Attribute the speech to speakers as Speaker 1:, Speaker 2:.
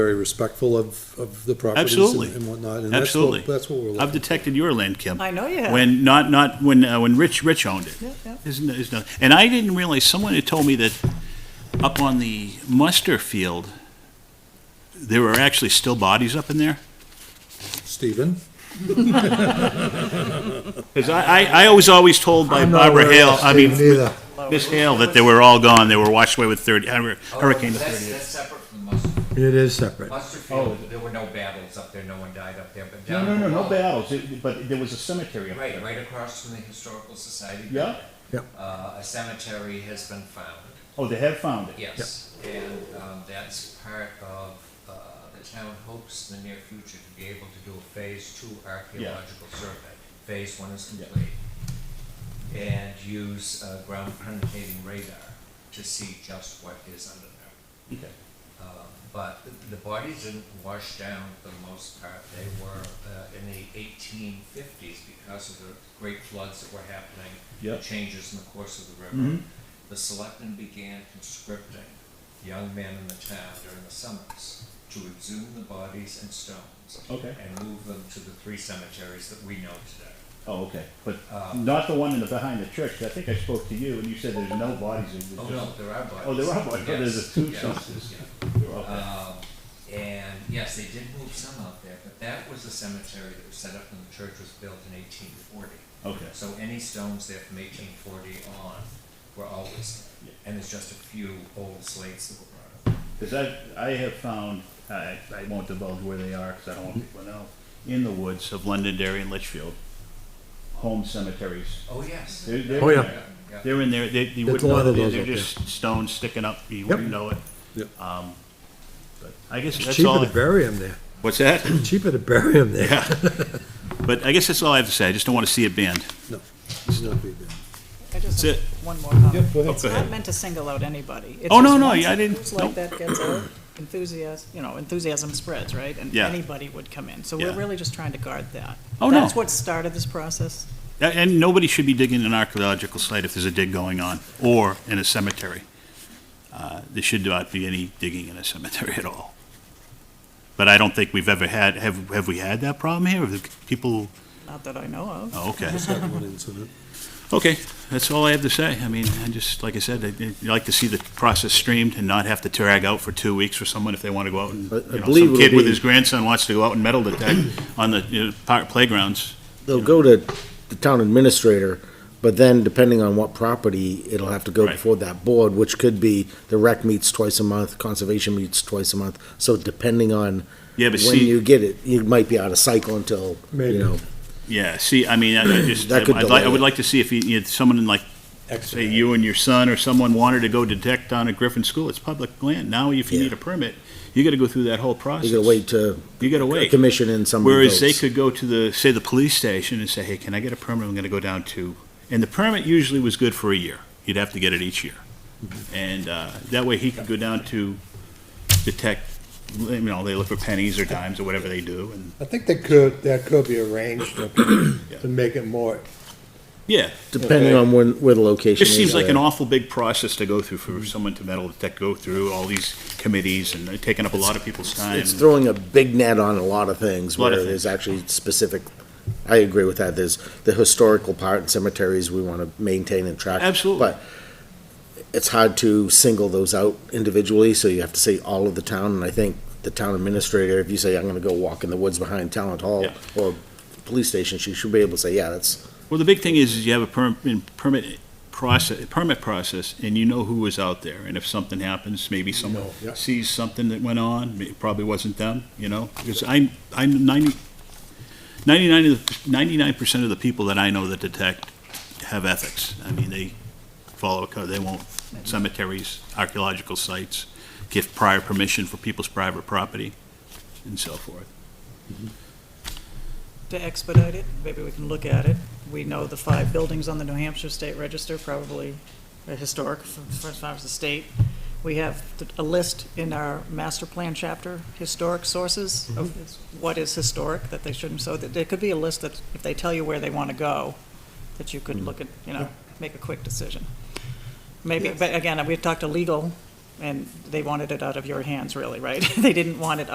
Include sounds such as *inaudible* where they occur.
Speaker 1: very respectful of, of the properties
Speaker 2: Absolutely.
Speaker 1: and- and whatnot. and that's what-
Speaker 2: Absolutely.
Speaker 1: That's what we're
Speaker 2: I've
Speaker 1: looking,
Speaker 2: detected your land, Kim.
Speaker 3: I know you have.
Speaker 2: When, not, not, when, uh, when Rich, Rich owned it.
Speaker 3: Yep, yep.
Speaker 2: Isn't, is not, and I didn't realize, someone had told me that up on the muster field, there were actually still bodies up in there?
Speaker 1: Stephen.
Speaker 2: Because I, I, I was always told by Barbara Hale, I mean,
Speaker 4: Neither.
Speaker 2: Miss Hale, that they were all gone, they were washed away with thirty, hur-
Speaker 5: Oh,
Speaker 2: hurricane to
Speaker 5: that's-
Speaker 2: thirty.
Speaker 5: That's separate from the muster.
Speaker 4: It is separate.
Speaker 5: Muster field, there were no battles up there, no one died up there, but down. below-
Speaker 2: battles, but there was a cemetery
Speaker 5: Right, right across from the Historical Society.
Speaker 2: Yeah.
Speaker 4: Yep.
Speaker 5: Uh, a cemetery has been found,
Speaker 2: Oh, they have found it?
Speaker 5: yes, and, um, that's part of, uh, the town hopes in the near future to be able to do a phase two archaeological survey. Phase one is
Speaker 2: Yeah.
Speaker 5: complete. And use, uh, ground penetrating radar to see just what is under there.
Speaker 2: Okay.
Speaker 5: Uh, but the bodies didn't wash down for the most part. They were uh, in the 1850s because of the great floods that were happening, the
Speaker 2: Yep.
Speaker 5: changes in the course of the river.
Speaker 2: Mhm.
Speaker 5: The selectmen began conscripting young men in the town during the summers to exhume the bodies and stones
Speaker 2: Okay.
Speaker 5: and move them to the three cemeteries that we know today.
Speaker 2: Oh, okay, but
Speaker 5: Uh,
Speaker 2: not the one in the, behind the church, I think I spoke to you, and you said there's no bodies, it
Speaker 5: Oh,
Speaker 2: was
Speaker 5: no,
Speaker 2: just.
Speaker 5: there are bodies.
Speaker 2: Oh, there are bodies. Oh, there's
Speaker 5: Yes,
Speaker 2: a two
Speaker 5: yes,
Speaker 2: census.
Speaker 5: yeah.
Speaker 2: Okay.
Speaker 5: Um, and yes, they did move some out there, but that was a cemetery that was set up when the church was built in eighteen forty.
Speaker 2: Okay.
Speaker 5: So any stones there from eighteen forty on were always there. And there's just a few old slates that were brought up.
Speaker 2: Because I, I have found, I, I won't divulge where they are, because I don't want people to know, in the woods of Londonderry and Litchfield, home cemeteries.
Speaker 5: Oh, yes.
Speaker 2: They're, they're.
Speaker 4: Oh, yeah.
Speaker 5: Yeah,
Speaker 2: They're in there, they, you
Speaker 4: There's
Speaker 2: wouldn't
Speaker 4: a lot
Speaker 2: know,
Speaker 4: of
Speaker 2: they're
Speaker 4: those
Speaker 2: they're
Speaker 4: out there.
Speaker 2: just stones sticking up, you wouldn't know it.
Speaker 1: Yep.
Speaker 2: Um, but I guess
Speaker 4: It's
Speaker 2: that's all.
Speaker 4: cheaper to
Speaker 2: I-
Speaker 4: bury him there.
Speaker 2: What's that?
Speaker 4: Cheaper to bury him there.
Speaker 2: Yeah. But I guess that's all I have to say, I just don't want to see it banned.
Speaker 1: No, he's not being there.
Speaker 3: I just
Speaker 2: That's
Speaker 3: have
Speaker 2: it.
Speaker 3: one more comment.
Speaker 1: Yep, go ahead.
Speaker 3: It's
Speaker 2: Go ahead.
Speaker 3: not meant to single out anybody. It's
Speaker 2: Oh, no,
Speaker 3: just
Speaker 2: no,
Speaker 3: once
Speaker 2: yeah, I didn't-
Speaker 3: groups
Speaker 2: nope.
Speaker 3: Like that gets out, enthusiasm, you know, enthusiasm spreads, right? And
Speaker 2: Yeah.
Speaker 3: anybody would come in. So we're
Speaker 2: Yeah.
Speaker 3: really just trying to guard that.
Speaker 2: Oh, no.
Speaker 3: That's what started this process.
Speaker 2: A- And nobody should be digging an archaeological site if there's a dig going on, or in a cemetery. Uh, There should not be any digging in a cemetery at all. But I don't think we've ever had, have, have we had that problem here? Have the people,
Speaker 3: Not that I know of.
Speaker 2: oh, okay.
Speaker 6: Mm-hmm.
Speaker 1: Just that one incident.
Speaker 2: Okay, that's all I have to say. I mean, I just, like I said, I'd I'd like to see the process streamed and not have to drag out for two weeks for someone if they want to go out and,
Speaker 6: I- I
Speaker 2: you know,
Speaker 6: believe
Speaker 2: some
Speaker 6: it'll
Speaker 2: kid with
Speaker 6: be-
Speaker 2: his grandson wants to go out and metal detect
Speaker 6: *clears throat*
Speaker 2: on the, you know, park playgrounds.
Speaker 6: They'll go to the town administrator, but then depending on what property, it'll have to go
Speaker 2: Right.
Speaker 6: before that board, which could be the rec meets twice a month, conservation meets twice a month. So depending on
Speaker 2: Yeah, but
Speaker 6: when
Speaker 2: see,
Speaker 6: you get it, you might be out of cycle until,
Speaker 4: Maybe.
Speaker 6: you know.
Speaker 2: yeah, see, I mean, I I just,
Speaker 6: That
Speaker 2: I'd
Speaker 6: could
Speaker 2: like, I
Speaker 6: delay
Speaker 2: would
Speaker 6: it.
Speaker 2: like to see if you, you had someone in like, say,
Speaker 1: Excellent.
Speaker 2: you and your son or someone wanted to go detect down at Griffin School, it's public land. Now, if you
Speaker 6: Yeah.
Speaker 2: need a permit, you gotta go through that whole process.
Speaker 6: You gotta wait to
Speaker 2: You gotta
Speaker 6: a
Speaker 2: wait.
Speaker 6: commission and somebody
Speaker 2: Whereas they
Speaker 6: votes.
Speaker 2: could go to the, say, the police station and say, hey, can I get a permit? I'm gonna go down to, and the permit usually was good for a year. You'd have to get it each year.
Speaker 6: Mm-hmm.
Speaker 2: And, uh, that way he could go down to detect, you know, they look for pennies or dimes or whatever they do and,
Speaker 7: I think that could, that could be arranged to, to make it more,
Speaker 2: yeah.
Speaker 6: Depending on when, where the
Speaker 2: It
Speaker 6: location is.
Speaker 2: just seems like
Speaker 6: uh,
Speaker 2: an awful big process to go through for someone to metal detect, go through all these committees and they're taking up a lot of people's time.
Speaker 6: It's throwing a big net on a lot of things
Speaker 2: Lot of
Speaker 6: where
Speaker 2: things.
Speaker 6: there's actually specific, I agree with that. There's the historical part and cemeteries we want to maintain and track.
Speaker 2: Absolutely.
Speaker 6: But it's hard to single those out individually, so you have to say all of the town. And I think the town administrator, if you say, I'm going to go walk in the woods behind Talent Hall
Speaker 2: Yeah.
Speaker 6: or police station, she should be able to say, yeah, that's,
Speaker 2: Well, the big thing is, is you have a perm- in- permit process, permit process, and you know who was out there, and if something happens, maybe someone
Speaker 4: yeah.
Speaker 2: sees something that went on, it probably wasn't them, you know? Because I'm, I'm ninety, ninety-nine, ninety-nine percent of the people that I know that detect have ethics. I mean, they follow, a code. they won't cemeteries, archaeological sites, give prior permission for people's private property, and so forth.
Speaker 3: to expedite it, maybe we can look at it. We know the five buildings on the New Hampshire State Register, probably uh, historic, from first five of the state. We have th- a list in our master plan chapter, historic sources of what is historic that they shouldn't, so that there could be a list that if they tell you where they want to go, that you could look at, you know, make a quick decision. Maybe, but again, we talked to legal, and they wanted it out of your hands, really, right? *laughs* They didn't want it